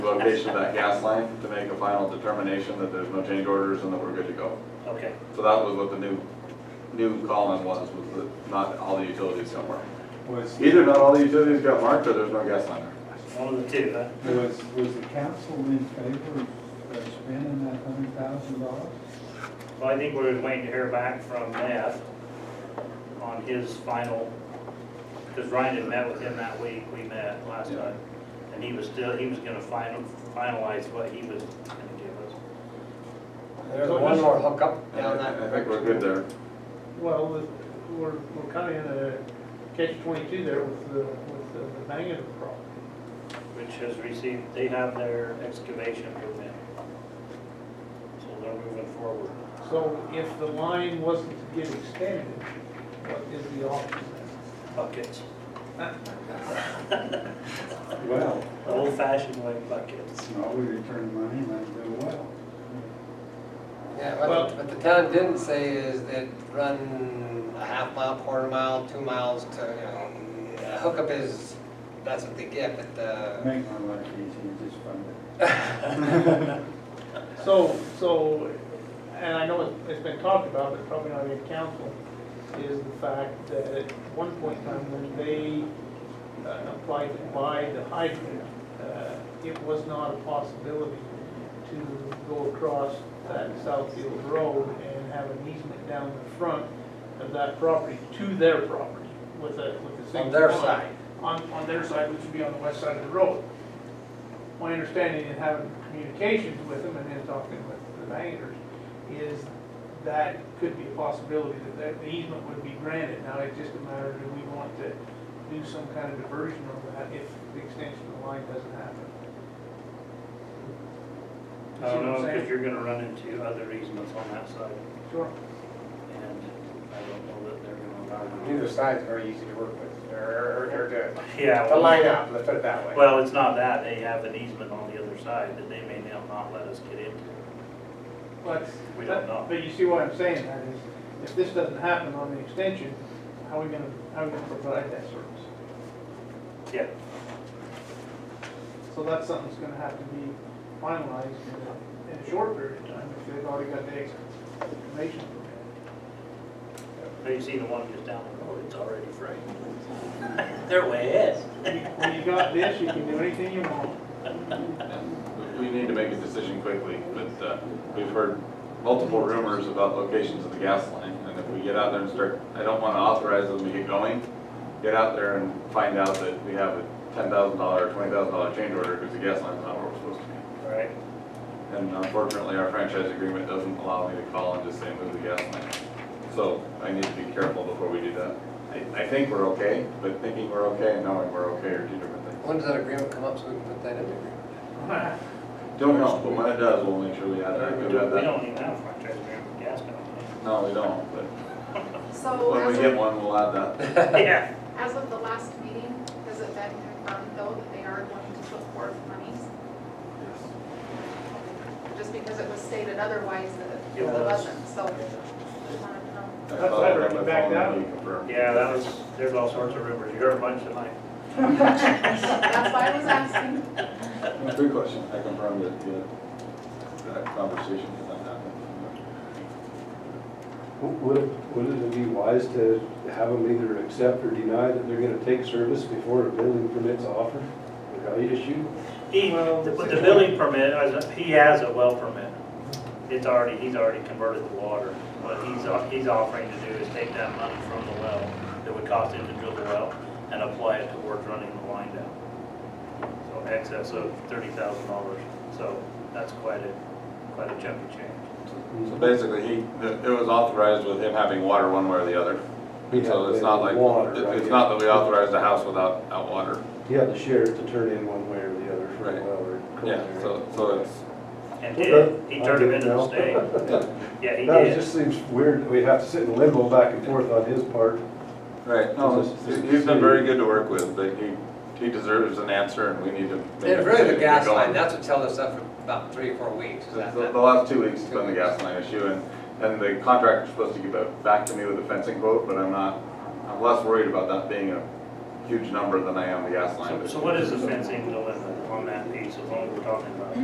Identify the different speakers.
Speaker 1: location of that gas line to make a final determination that there's no change orders and that we're good to go.
Speaker 2: Okay,
Speaker 1: So that was what the new, new column was, was that not all the utilities got marked.
Speaker 3: Was,
Speaker 1: Either not all the utilities got marked or there's no gas line there.
Speaker 2: one of the two, huh?
Speaker 3: was, was the council in favor of uh, spending that hundred thousand dollars?
Speaker 2: Well, I think we're waiting to hear back from Matt on his final, because Ryan had met with him that week, we met last
Speaker 1: Yeah.
Speaker 2: time. And he was still, he was gonna final, finalize what he was gonna give
Speaker 4: There's one more hookup down
Speaker 1: I I think
Speaker 4: that.
Speaker 1: we're good there.
Speaker 5: Well, the- we're, we're kind of in a catch twenty-two there with the, with the the Bangor problem.
Speaker 2: us, which has received, they have their excavation permit. So they're moving forward.
Speaker 5: So if the line wasn't to get extended, what is the option?
Speaker 2: Buckets,
Speaker 3: Well,
Speaker 2: old fashioned way buckets.
Speaker 3: no, we returned money and that's been well.
Speaker 4: Yeah, what, what the town didn't say is that run a half mile, quarter mile, two miles to, you know, a hookup is, that's what they get, but, uh,
Speaker 3: Make my life easy, just fund
Speaker 5: So, so, and I know it- it's been talked about, but probably not in council, is the fact that at one point in time when they uh, applied to buy the hydrant, uh, it was not a possibility to go across that Southfield Road and have an easement down the front of that property to their property with a, with a single.
Speaker 4: on their
Speaker 5: line
Speaker 4: side.
Speaker 5: on, on their side, which would be on the west side of the road. My understanding in having communications with them and then talking with the bankers is that could be a possibility that that the easement would be granted. Now, it's just a matter of do we want to do some kind of diversion of that if the extension of the line doesn't happen?
Speaker 2: I don't know, because you're gonna run into other easements on that side.
Speaker 5: Sure.
Speaker 2: And I don't know that they're gonna
Speaker 6: Neither
Speaker 2: allow
Speaker 6: side's very easy to work with, or, or to,
Speaker 2: it. Yeah,
Speaker 6: to
Speaker 2: well,
Speaker 6: line up, let's put it that way.
Speaker 2: well, it's not that, they have an easement on the other side that they may now not let us get into.
Speaker 5: But,
Speaker 2: We don't know.
Speaker 5: but you see what I'm saying, that is, if this doesn't happen on the extension, how are we gonna, how are we gonna provide that service?
Speaker 2: Yeah,
Speaker 5: So that's something that's gonna have to be finalized in a, in a short period of time, if they've already got the excavation permit.
Speaker 2: but you see the one just down the road, it's already free. They're way ahead.
Speaker 5: When you got this, you can do anything you want.
Speaker 1: And we we need to make a decision quickly, but uh, we've heard multiple rumors about locations of the gas line. And if we get out there and start, I don't want to authorize them to get going, get out there and find out that we have a ten thousand dollar, twenty thousand dollar change order because the gas line's not where we're supposed to be.
Speaker 2: Right.
Speaker 1: And unfortunately, our franchise agreement doesn't allow me to call and just say move the gas line. So I need to be careful before we do that. I, I think we're okay, but thinking we're okay and knowing we're okay are two different things.
Speaker 4: When does that agreement come up so we can put that in the agreement?
Speaker 1: Don't know, but when it does, we'll make sure we add that.
Speaker 2: We
Speaker 1: We've got that.
Speaker 2: don't even have a franchise agreement with gas company.
Speaker 1: No, we don't, but
Speaker 7: So
Speaker 1: when we
Speaker 7: as
Speaker 1: get
Speaker 7: of,
Speaker 1: one, we'll add that.
Speaker 2: Yeah,
Speaker 7: as of the last meeting, has it been confirmed though that they are going to put forth monies? Just because it was stated otherwise that
Speaker 2: It
Speaker 7: it
Speaker 2: was.
Speaker 7: wasn't, so just wanted to know.
Speaker 1: I
Speaker 5: That's
Speaker 1: followed
Speaker 5: better,
Speaker 1: up
Speaker 5: you
Speaker 1: with
Speaker 5: back
Speaker 1: phone and
Speaker 5: down.
Speaker 1: he confirmed.
Speaker 2: yeah, that was, there's all sorts of rumors, you heard a bunch tonight.
Speaker 7: That's why I was asking.
Speaker 1: Good question. I confirmed that, yeah, that conversation did not happen.
Speaker 8: Would, it- would it be wise to have them either accept or deny that they're gonna take service before a building permit's offered? Or how you just shoot?
Speaker 2: He,
Speaker 5: Well,
Speaker 2: the- but the
Speaker 5: it's-
Speaker 2: building permit, as a- he has a well permit. It's already, he's already converted the water. What he's, o- he's offering to do is take that money from the well that would cost him to drill the well and apply it towards running the line down. So excess of thirty thousand dollars. So that's quite a, quite a chunk of change.
Speaker 1: So basically, he, it was authorized with him having water one way or the other.
Speaker 8: He
Speaker 1: So
Speaker 8: had
Speaker 1: it's not like,
Speaker 8: water,
Speaker 1: it-
Speaker 8: right?
Speaker 1: it's not that we authorized a house without, without water.
Speaker 8: He had the sheriff to turn in one way or the other for
Speaker 1: Right.
Speaker 8: a well or.
Speaker 1: Yeah, so, so it's,
Speaker 2: And did, he turned him into the state. Yeah, he
Speaker 8: No, it
Speaker 2: did.
Speaker 8: just seems weird that we have to sit in limbo back and forth on his part.
Speaker 1: right, no, it's- he's been very good to work with, but he, he deserves an answer and we need to. make a
Speaker 4: It's really
Speaker 1: decision
Speaker 4: the
Speaker 1: to
Speaker 4: gas
Speaker 1: go
Speaker 4: line,
Speaker 1: on.
Speaker 4: that's what held us up for about three, four weeks, is that,
Speaker 1: The, the last two weeks has been the gas line issue and, and the contractor's supposed to get back- back to me with a fencing quote, but I'm not, I'm less worried about that being a huge number than I am the gas line.
Speaker 2: So so what is the fencing dilemma? on that piece, as long as we're talking about it.